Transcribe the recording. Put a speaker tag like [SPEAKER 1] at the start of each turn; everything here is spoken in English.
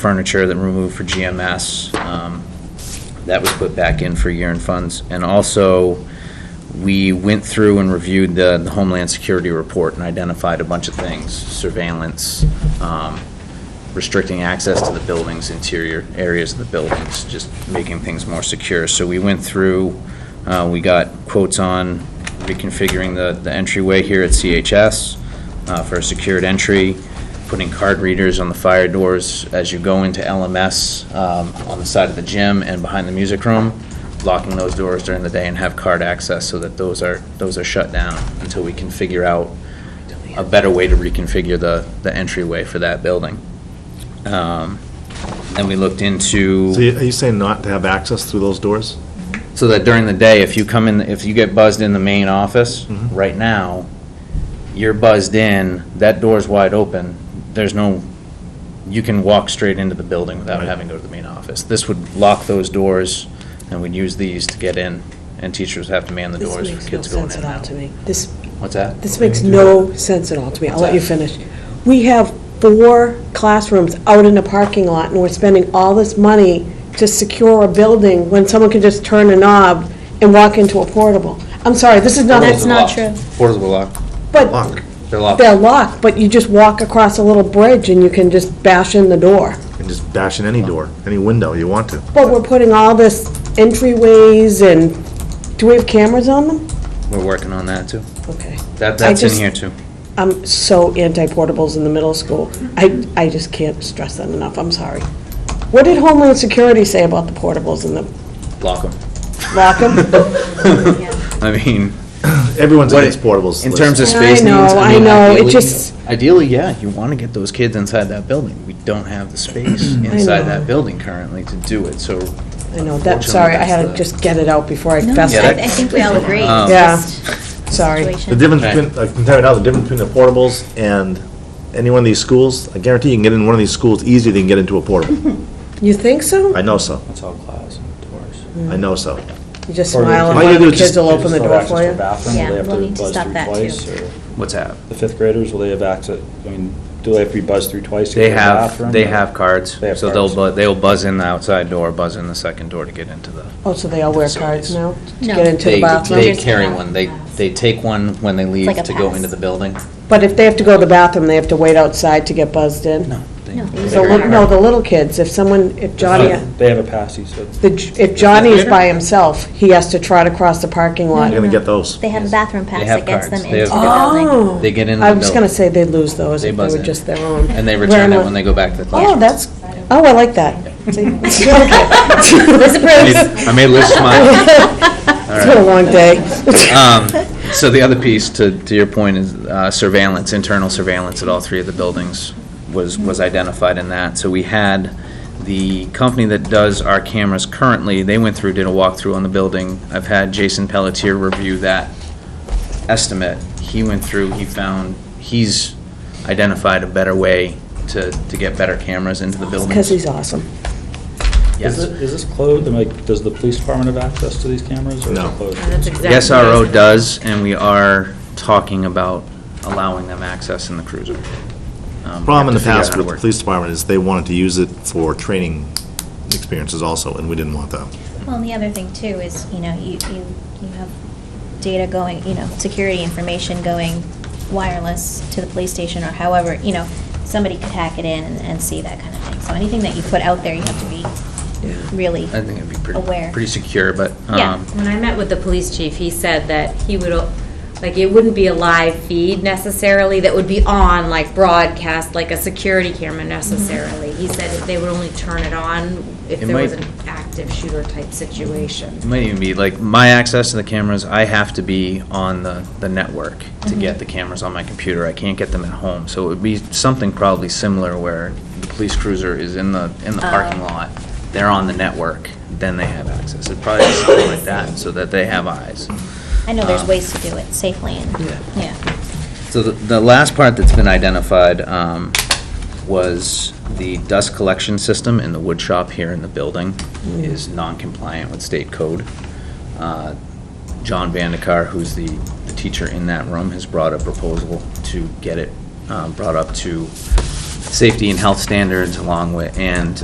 [SPEAKER 1] furniture that were removed for GMS. um, That was put back in for year-end funds. And also, we went through and reviewed the the Homeland Security report and identified a bunch of things, surveillance, um, restricting access to the buildings, interior areas of the buildings, just making things more secure. So we went through, uh, we got quotes on reconfiguring the the entryway here at CHS uh, for a secured entry, putting card readers on the fire doors as you go into LMS um, on the side of the gym and behind the music room, locking those doors during the day and have card access so that those are, those are shut down until we can figure out a better way to reconfigure the, the entryway for that building. Um, Then we looked into.
[SPEAKER 2] So you- are you saying not to have access through those doors?
[SPEAKER 1] So that during the day, if you come in, if you get buzzed in the main office, right now, you're buzzed in, that door's wide open, there's no, you can walk straight into the building without
[SPEAKER 2] Right.
[SPEAKER 1] having to go to the main office. This would lock those doors, and we'd use these to get in, and teachers would have to man the
[SPEAKER 3] This
[SPEAKER 1] doors
[SPEAKER 3] makes
[SPEAKER 1] for
[SPEAKER 3] no
[SPEAKER 1] kids going
[SPEAKER 3] sense
[SPEAKER 1] in
[SPEAKER 3] at
[SPEAKER 1] and
[SPEAKER 3] all to
[SPEAKER 1] out.
[SPEAKER 3] me. This,
[SPEAKER 1] What's that?
[SPEAKER 3] this makes no sense at all to me. I'll let you
[SPEAKER 1] What's
[SPEAKER 3] finish. We have four classrooms out in a parking lot, and we're spending all this money to secure a building when someone can just turn a knob and walk into a portable. I'm sorry, this is not,
[SPEAKER 1] Portables
[SPEAKER 3] That's
[SPEAKER 1] are
[SPEAKER 3] not-
[SPEAKER 4] not
[SPEAKER 1] locked.
[SPEAKER 4] true.
[SPEAKER 1] Portables are locked,
[SPEAKER 3] but
[SPEAKER 2] Lock,
[SPEAKER 1] they're locked.
[SPEAKER 3] they're locked, but you just walk across a little bridge and you can just bash in the door.
[SPEAKER 2] and just bash in any door, any window you want to.
[SPEAKER 3] But we're putting all this entryways and, do we have cameras on them?
[SPEAKER 1] We're working on that, too.
[SPEAKER 3] Okay.
[SPEAKER 1] That,
[SPEAKER 3] I
[SPEAKER 1] that's in
[SPEAKER 3] just-
[SPEAKER 1] here, too.
[SPEAKER 3] I'm so anti-portables in the middle school. I, I just can't stress that enough, I'm sorry. What did Homeland Security say about the portables in the
[SPEAKER 1] Lock them.
[SPEAKER 3] locker?
[SPEAKER 1] I mean,
[SPEAKER 2] Everyone's
[SPEAKER 1] What
[SPEAKER 2] against
[SPEAKER 1] it-
[SPEAKER 2] portables.
[SPEAKER 1] in
[SPEAKER 2] Liz.
[SPEAKER 1] terms of
[SPEAKER 3] I
[SPEAKER 1] space needs,
[SPEAKER 3] know,
[SPEAKER 1] I
[SPEAKER 3] I
[SPEAKER 1] mean,
[SPEAKER 3] know, it
[SPEAKER 1] ideally-
[SPEAKER 3] just-
[SPEAKER 1] Ideally, yeah, you want to get those kids inside that building. We don't have the space inside
[SPEAKER 3] know.
[SPEAKER 1] that building currently to do it, so.
[SPEAKER 3] I know, that, sorry, I had to just get it out before I
[SPEAKER 4] No,
[SPEAKER 3] fessed
[SPEAKER 1] Yeah,
[SPEAKER 4] I
[SPEAKER 1] that-
[SPEAKER 4] I
[SPEAKER 3] it.
[SPEAKER 4] think we all agree.
[SPEAKER 1] Um,
[SPEAKER 3] Yeah. Sorry.
[SPEAKER 2] The
[SPEAKER 4] Sorry.
[SPEAKER 2] difference
[SPEAKER 1] Right.
[SPEAKER 2] between, I can tell you now, the difference between the portables and any one of these schools, I guarantee you can get in one of these schools easier than you can get into a portable.
[SPEAKER 3] You think so?
[SPEAKER 2] I know so,
[SPEAKER 1] That's all glass and doors.
[SPEAKER 2] I know so.
[SPEAKER 3] You just
[SPEAKER 5] Or
[SPEAKER 3] smile and
[SPEAKER 2] All
[SPEAKER 3] one
[SPEAKER 2] you
[SPEAKER 3] of the
[SPEAKER 2] do is
[SPEAKER 3] kids
[SPEAKER 2] just-
[SPEAKER 3] will open the door for you?
[SPEAKER 4] Yeah, we'll need to stop that,
[SPEAKER 5] too.
[SPEAKER 1] What's that?
[SPEAKER 5] The fifth graders, will they have access, I mean, do they have to be buzzed through twice? to
[SPEAKER 1] They
[SPEAKER 5] get to the
[SPEAKER 1] have,
[SPEAKER 5] bathroom?
[SPEAKER 1] they have cards,
[SPEAKER 5] They have
[SPEAKER 1] so they'll, bu-
[SPEAKER 5] cards.
[SPEAKER 1] they'll buzz in the outside door, buzz in the second door to get into the.
[SPEAKER 3] Oh, so they all wear cards now? to
[SPEAKER 4] No.
[SPEAKER 3] Get into the
[SPEAKER 1] They, they
[SPEAKER 3] bathroom?
[SPEAKER 4] Teachers
[SPEAKER 1] carry
[SPEAKER 4] have
[SPEAKER 1] one, they,
[SPEAKER 4] pass.
[SPEAKER 1] they take one when they leave
[SPEAKER 4] like a
[SPEAKER 1] to go
[SPEAKER 4] pass.
[SPEAKER 1] into the building.
[SPEAKER 3] But if they have to go to the bathroom, they have to wait outside to get buzzed in?
[SPEAKER 1] No. they-
[SPEAKER 4] No,
[SPEAKER 1] they
[SPEAKER 4] these
[SPEAKER 3] So,
[SPEAKER 4] are
[SPEAKER 1] carry
[SPEAKER 3] look-
[SPEAKER 1] a
[SPEAKER 3] no,
[SPEAKER 1] card.
[SPEAKER 3] the little kids, if someone, if Johnny,
[SPEAKER 5] No, They have a pass, he said.
[SPEAKER 3] the J- if Johnny is by himself, he has to trot across the parking lot
[SPEAKER 2] You're gonna get those.
[SPEAKER 1] Um,
[SPEAKER 4] They have a bathroom pass
[SPEAKER 1] have
[SPEAKER 4] that gets them
[SPEAKER 1] cards. They
[SPEAKER 4] into the
[SPEAKER 1] have-
[SPEAKER 4] building.
[SPEAKER 3] Oh.
[SPEAKER 1] They get into the
[SPEAKER 3] I was
[SPEAKER 1] building.
[SPEAKER 3] gonna say they'd lose those
[SPEAKER 1] They
[SPEAKER 3] if they
[SPEAKER 1] buzz
[SPEAKER 3] were
[SPEAKER 1] in.
[SPEAKER 3] just their own.
[SPEAKER 1] And they return
[SPEAKER 3] Wear
[SPEAKER 1] it
[SPEAKER 3] 'em
[SPEAKER 1] when they
[SPEAKER 3] out.
[SPEAKER 1] go back to the
[SPEAKER 3] Oh,
[SPEAKER 1] classroom.
[SPEAKER 3] that's, oh, I like that. See, It's
[SPEAKER 4] Liz
[SPEAKER 1] I
[SPEAKER 4] approves.
[SPEAKER 1] made- I made Liz smile.
[SPEAKER 3] been a long day.
[SPEAKER 1] So the other piece, to, to your point, is uh, surveillance, internal surveillance at all three of the buildings was, was identified in that. So we had the company that does our cameras currently, they went through, did a walkthrough on the building. I've had Jason Pelletier review that estimate. He went through, he found, he's identified a better way to, to get better cameras into the buildings.
[SPEAKER 3] Because he's awesome.
[SPEAKER 1] Yes.
[SPEAKER 5] Is it- Is this closed, and like, does the police department have access to these cameras? or is it
[SPEAKER 2] No.
[SPEAKER 5] closed?
[SPEAKER 1] The SRO does, and we are talking about allowing them access in the cruiser. Um, we have
[SPEAKER 2] Problem
[SPEAKER 1] to
[SPEAKER 2] in the
[SPEAKER 1] figure out how
[SPEAKER 2] past
[SPEAKER 1] to
[SPEAKER 2] with the
[SPEAKER 1] work.
[SPEAKER 2] police department is they wanted to use it for training experiences also, and we didn't want that.
[SPEAKER 4] Well, and the other thing too is, you know, you, you, you have data going, you know, security information going wireless to the police station or however, you know, somebody could hack it in and, and see that kind of thing. So anything that you put out there, you have to be really
[SPEAKER 1] I think it'd be pretty,
[SPEAKER 4] aware.
[SPEAKER 1] pretty secure, but,
[SPEAKER 4] Yeah.
[SPEAKER 1] um,
[SPEAKER 6] When I met with the police chief, he said that he would, like, it wouldn't be a live feed necessarily that would be on, like, broadcast, like a security camera necessarily. He said that they would only turn it on if
[SPEAKER 1] It
[SPEAKER 6] there was
[SPEAKER 1] might-
[SPEAKER 6] an active shooter type
[SPEAKER 1] it
[SPEAKER 6] situation.
[SPEAKER 1] might even be, like, my access to the cameras, I have to be on the, the network to
[SPEAKER 4] Mm-hmm.
[SPEAKER 1] get the cameras on my computer. I can't get them at home. So it would be something probably similar where the police cruiser is in the, in the
[SPEAKER 4] Oh.
[SPEAKER 1] parking lot. They're on the network, then they have access. It'd probably be something like that, so that they have eyes.
[SPEAKER 4] I know there's
[SPEAKER 1] Um,
[SPEAKER 4] ways to do it safely and,
[SPEAKER 1] Yeah.
[SPEAKER 4] yeah.
[SPEAKER 1] So the, the last part that's been identified um, was the dust collection system in the wood shop here in the building is non-compliant with state code. Uh, John Vandekar, who's the, the teacher in that room, has brought a proposal um, to get it uh, brought up to safety and health standards along with, and